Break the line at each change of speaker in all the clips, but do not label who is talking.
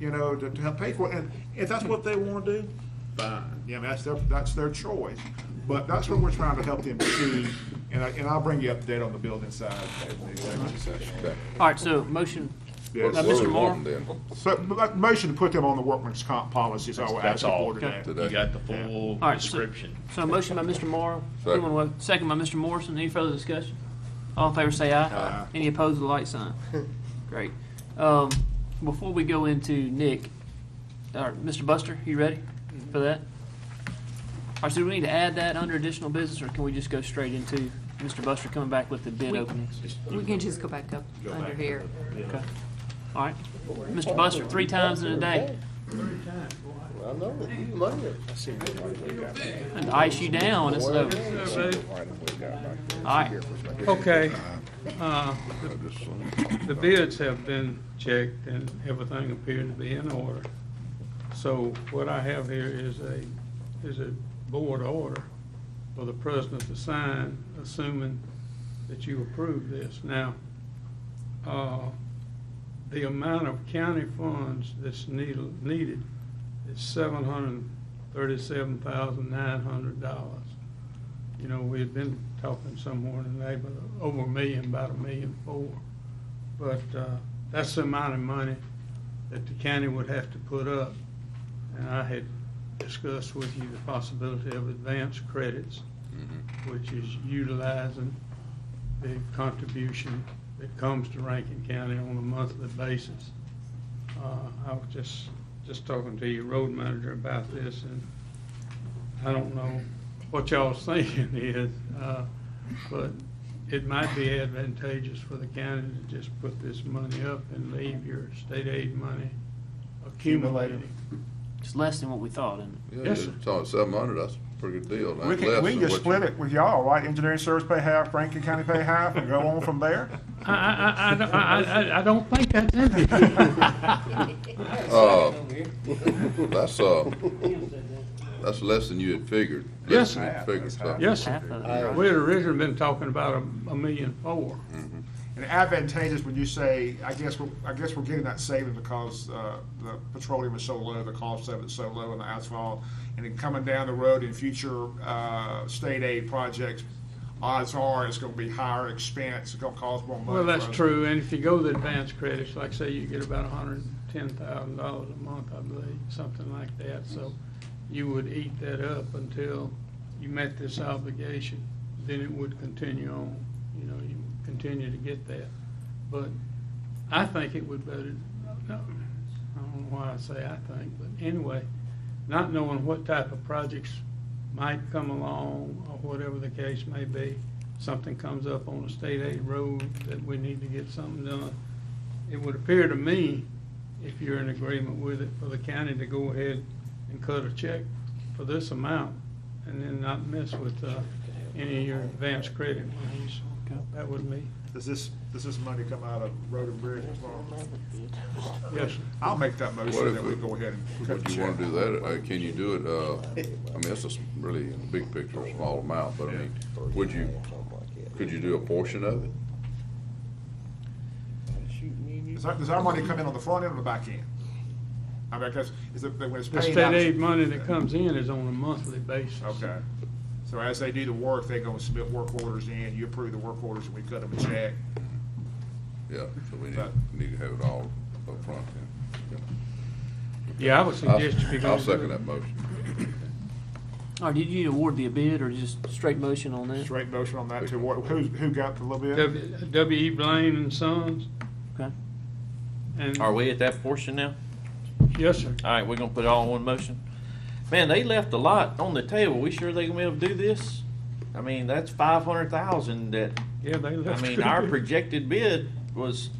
you know, to, to help pay for it. And if that's what they want to do, fine. Yeah, I mean, that's their, that's their choice. But that's what we're trying to help them see. And I, and I'll bring you up to date on the building side at the executive session.
All right, so motion,
Yes.
Now, Mr. Moore,
So, but like, motion to put them on the workman's comp policy is all we're
That's
asking
all.
for today.
You got the full
All right, so-
description.
so a motion by Mr. Moore,
Second.
anyone wa- second by Mr. Morrison, any further discussion? All in favor say aye. Any opposed with a light sign. Great. Um, Before we go into Nick, all right, Mr. Buster, you ready for that? All right, so do we need to add that under additional business, or can we just go straight into Mr. Buster coming back with the bid
We-
openings?
We can just go back up under here.
Okay. All right, Mr. Buster, three times in a day,
I know, you love it.
and ice you down, it's over. All right,
Okay, uh, the bids have been checked and everything appeared to be in order. So what I have here is a, is a board order for the president to sign, assuming that you approve this. Now, uh, the amount of county funds that's needed, needed is seven hundred and thirty-seven thousand nine hundred dollars. You know, we had been talking somewhere in the neighborhood, of over a million, about a million four. But, uh, that's the amount of money that the county would have to put up. And I had discussed with you the possibility of advance credits, which is utilizing the contribution that comes to Rankin County on a monthly basis. Uh, I was just, just talking to your road manager about this, and I don't know what y'all's thinking is, uh, but it might be advantageous for the county to just put this money up and leave your state aid money accumulating.
it's less than what we thought, isn't it?
Yes, sir.
It's on seven hundred, that's a pretty good deal.
We can, we can just split it with y'all, right? Engineering service pay half, Rankin County pay half, and go on from there.
I, I, I don't- I, I, I don't think that's in it.
That's, uh, that's less than you had figured. Less
Yes,
than you
sir.
figured, so.
Yes,
Half of it,
sir.
right.
We had originally been talking about a, a million four.
And advantageous when you say, I guess, we're- I guess we're getting that saving because uh, the petroleum is so low, the cost of it's so low in the asphalt. And then coming down the road in future uh, state aid projects, odds are it's going to be higher expense, it's going to cost more money.
Well, that's
for us.
true, and if you go the advanced credits, like say you get about hundred and ten thousand dollars a month, I believe, something like that, so you would eat that up until you met this obligation, then it would continue on, you know, you would continue to get that. But I think it would better, no, I don't know why I say I think, but anyway, not knowing what type of projects might come along, or whatever the case may be, something comes up on a state aid road that we need to get something done. It would appear to me, if you're in agreement with it, for the county to go ahead and cut a check for this amount, and then not mess with, uh, any of your advance credit monies. That would be,
Does this, does this money come out of road and bridge?
yes, sir.
I'll make that
What
motion
if
that we
we-
go ahead and cut
Would
the
you wanna
check.
do that, uh, can you do it, uh, I mean, that's a s- really, in the big picture, a small amount, but I mean, would you, could you do a portion of it?
Does our, does our money come in on the front end or the back end? I mean, because, is it, when it's
The
paid out?
state aid money that comes in is on a monthly basis.
Okay. So as they do the work, they gonna submit work orders in, you approve the work orders, and we cut them a check.
Yeah, so we need,
That-
need to have it all up front then.
Yeah, I
I'll-
would suggest if you're gonna
I'll
do
second
it,
that motion.
All right, did you award the bid or just straight motion on that?
Straight motion on that too. What, who, who got the little bit?
W- W. E. Blaine and Sons,
Okay.
and,
Are we at that portion now?
yes, sir.
All right, we're gonna put it all in one motion. Man, they left a lot on the table. We sure they gonna be able to do this? I mean, that's five hundred thousand that,
Yeah, they
I
left. uh,
mean, our projected bid was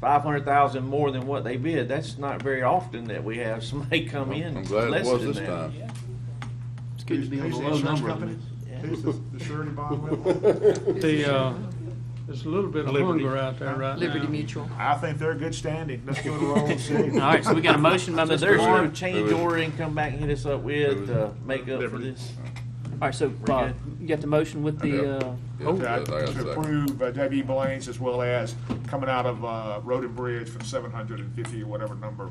five hundred thousand more than what they bid. That's not very often that we have somebody come in
I'm
less
glad it was
than
this
that.
time.
It's good to be on the
Who's-
low
who's the insurance
number. on
company?
this.
Who's the the surety bond with?
The, uh, there's a little bit of hunger out there right now.
Liberty Mutual.
I think they're good standing. Let's go to roll and see.
All right, so we got a motion by
So
Mr.
there's no
Moore.
change order and come back and hit us up with, uh, make up for this.
All right, so Bob, you got the motion with the, uh,
Yeah, I got a
To
second.
approve uh, W. Blaine's as well as coming out of, uh, Road and Bridge for seven hundred and fifty or whatever number.